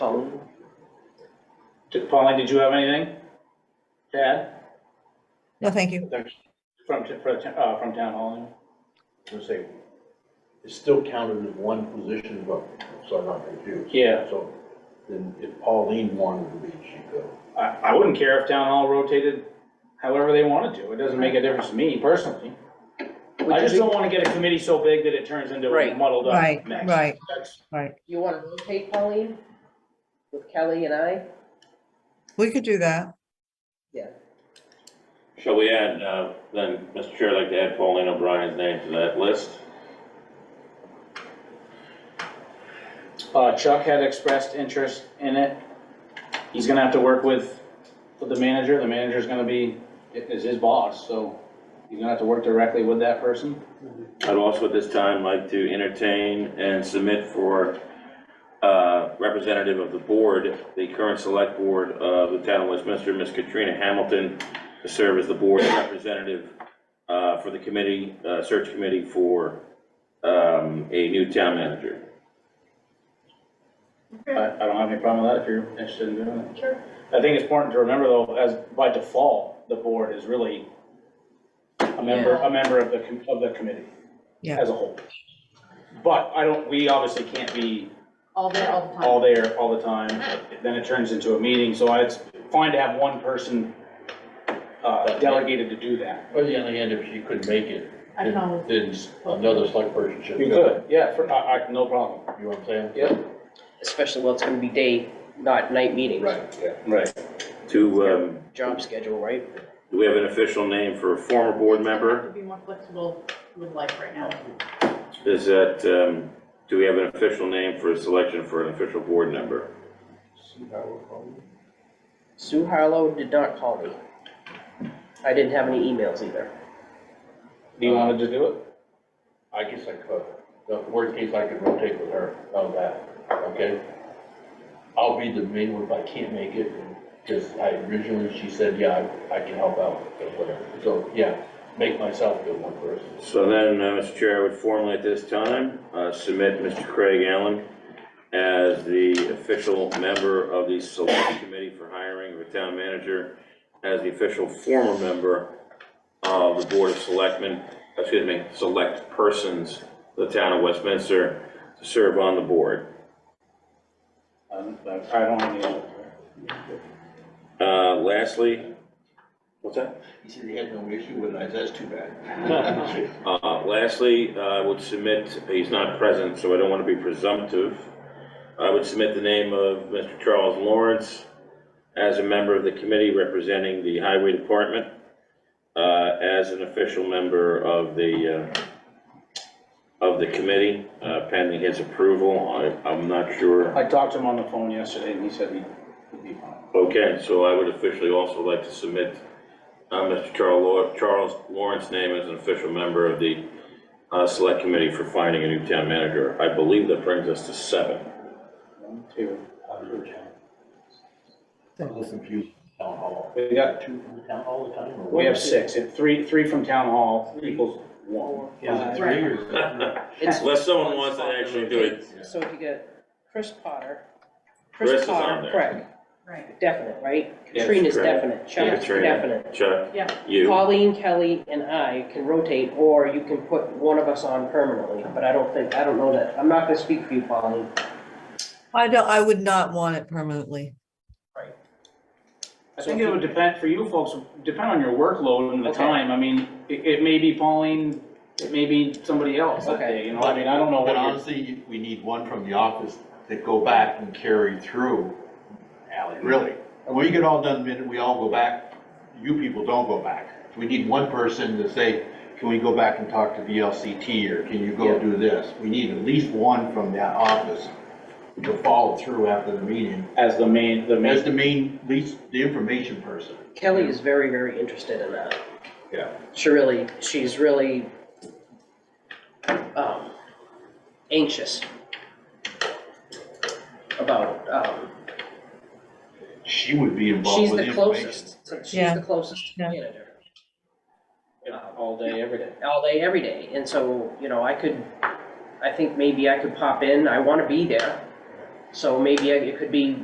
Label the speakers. Speaker 1: phone.
Speaker 2: Did- Pauline, did you have anything to add
Speaker 3: No, thank you.
Speaker 2: from, t- for t- uh, from town hall?
Speaker 4: I'm gonna say, it's still counted as one position vote, so I'm not confused.
Speaker 2: Yeah.
Speaker 4: So then if Pauline wanted to be, she'd go.
Speaker 2: I, I wouldn't care if town hall rotated however they wanted to. It doesn't make a difference to me personally. I
Speaker 1: Would
Speaker 2: just
Speaker 1: you,
Speaker 2: don't want to get a committee so big that it turns into a
Speaker 1: Right.
Speaker 2: muddled up
Speaker 3: Right,
Speaker 2: mess.
Speaker 3: right.
Speaker 2: That's-
Speaker 3: Right.
Speaker 1: you want to rotate Pauline with Kelly and I?
Speaker 3: We could do that.
Speaker 1: Yeah.
Speaker 5: Shall we add, uh, then, Mr. Chair, I'd like to add Pauline O'Brien's name to that list?
Speaker 2: Uh, Chuck had expressed interest in it. He's gonna have to work with, with the manager. The manager's gonna be, is his boss, so he's gonna have to work directly with that person.
Speaker 5: I'd also at this time like to entertain and submit for uh, representative of the board, the current select board of the town of Westminster, Miss Katrina Hamilton, to serve as the board's representative uh, for the committee, uh, search committee for um, a new town manager.
Speaker 2: I, I don't have any problem with that if you're interested in doing it. Sure. I think it's important to remember though, as by default, the board is really a member, a member of the, com- of the committee
Speaker 3: Yeah.
Speaker 2: as a whole. But I don't, we obviously can't be
Speaker 6: All day, all the
Speaker 2: all
Speaker 6: time.
Speaker 2: there all the time, then it turns into a meeting, so it's fine to have one person uh, delegated to do that.
Speaker 4: But the other hand, if she couldn't make it,
Speaker 6: I can always-
Speaker 4: then another select person should go.
Speaker 2: You could, yeah, for, I, I, no problem.
Speaker 4: You know what I'm saying?
Speaker 2: Yep.
Speaker 1: Especially, well, it's gonna be day, not night meetings.
Speaker 4: Right, yeah.
Speaker 2: Right.
Speaker 5: To, um,
Speaker 1: Job schedule, right?
Speaker 5: do we have an official name for a former board member?
Speaker 6: To be more flexible with life right now.
Speaker 5: Is that, um, do we have an official name for a selection for an official board member?
Speaker 1: Sue Harlow did not call me. I didn't have any emails either.
Speaker 2: Do you want to just do it?
Speaker 4: I guess I could. The worst case, I could rotate with her on that, okay? I'll be the main one if I can't make it, because I originally, she said, yeah, I I can help out, or whatever. So, yeah, make myself the one person.
Speaker 5: So then, uh, Mr. Chair, I would formally at this time uh, submit Mr. Craig Allen as the official member of the Select Committee for Hiring of a Town Manager, as the official former member of the Board of Selectmen, excuse me, Select Persons, of the Town of Westminster, to serve on the board.
Speaker 2: Um, I don't have any other.
Speaker 5: Uh, Lastly, what's that?
Speaker 4: He said he had no issue with it, I said, that's too bad.
Speaker 5: Uh, Lastly, I would submit, he's not present, so I don't want to be presumptive. I would submit the name of Mr. Charles Lawrence as a member of the committee representing the Highway Department, uh, as an official member of the, uh, of the committee, uh, pending his approval. I- I'm not sure.
Speaker 2: I talked to him on the phone yesterday and he said he- he'd be fine.
Speaker 5: Okay, so I would officially also like to submit uh, Mr. Charles Law- Charles Lawrence's name as an official member of the uh, Select Committee for finding a new town manager. I believe that brings us to seven.
Speaker 2: One, two, three.
Speaker 4: I'm a little confused, with town hall.
Speaker 2: We got,
Speaker 4: Two from the town hall the time? or
Speaker 2: we have
Speaker 4: one?
Speaker 2: six, If three, three from town hall equals one.
Speaker 4: Is it three or? is it-
Speaker 1: It's-
Speaker 5: Unless someone wants to actually do it.
Speaker 1: So if you get Chris Potter.
Speaker 5: Chris is on
Speaker 1: Potter,
Speaker 5: there.
Speaker 1: Correct,
Speaker 6: Right,
Speaker 1: definite, right?
Speaker 5: Yes,
Speaker 1: Katrina's
Speaker 5: correct.
Speaker 1: definite, Chuck's
Speaker 5: Katrina,
Speaker 1: definite.
Speaker 5: Chuck,
Speaker 6: yeah.
Speaker 5: you,
Speaker 1: Pauline, Kelly, and I can rotate, or you can put one of us on permanently, but I don't think, I don't know that, I'm not gonna speak for you, Pauline.
Speaker 3: I don't, I would not want it permanently.
Speaker 2: I think it would depend, for you folks, depend on your workload and the time. I mean, it, it may be Pauline, it may be somebody else that
Speaker 1: Okay.
Speaker 2: day, you know, I mean, I don't know what
Speaker 4: But
Speaker 2: you're
Speaker 4: honestly, we need one from the office that go back and carry through, Ally, really. And we get all done, minute, we all go back, you people don't go back. We need one person to say, can we go back and talk to VLCT, or can you
Speaker 2: Yeah.
Speaker 4: go do this? We need at least one from that office to follow through after the meeting,
Speaker 2: as the main, the main.
Speaker 4: as the main, least, the information person.
Speaker 1: Kelly is very, very interested in that.
Speaker 4: Yeah.
Speaker 1: She really, she's really, um, anxious about it. Um,
Speaker 4: She would be
Speaker 1: she's
Speaker 4: involved with
Speaker 1: the
Speaker 4: information.
Speaker 1: closest, to- she's
Speaker 3: Yeah.
Speaker 1: the closest
Speaker 3: Yeah.
Speaker 1: manager.
Speaker 2: All day, every day.
Speaker 1: all day, every day, and so, you know, I could, I think maybe I could pop in, I wanna be there. So maybe I- it could be